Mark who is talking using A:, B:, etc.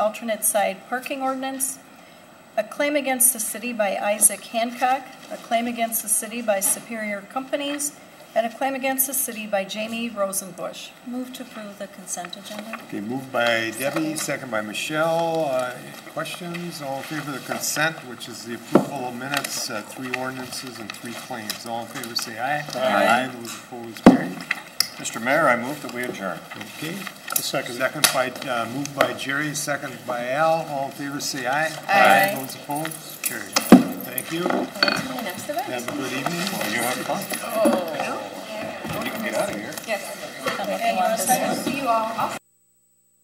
A: alternate side parking ordinance, a claim against the city by Isaac Hancock, a claim against the city by Superior Companies, and a claim against the city by Jamie Rosenbush. Move to approve the consent agenda.
B: Okay, moved by Debbie, second by Michelle. Uh, Questions? All in favor of the consent, which is the approval of minutes, uh, three ordinances and three claims. All in favor, say aye. Aye. Those opposed, carried.
C: Mr. Mayor, I move that we adjourn.
B: Okay. Second. Second by, uh, moved by Jerry, second by Al. All in favor, say aye.
A: Aye.
B: Those opposed, carried. Thank you.
A: Next event.
B: Have a good evening.
C: You have fun. You can get out of here.
A: Yes. See you all.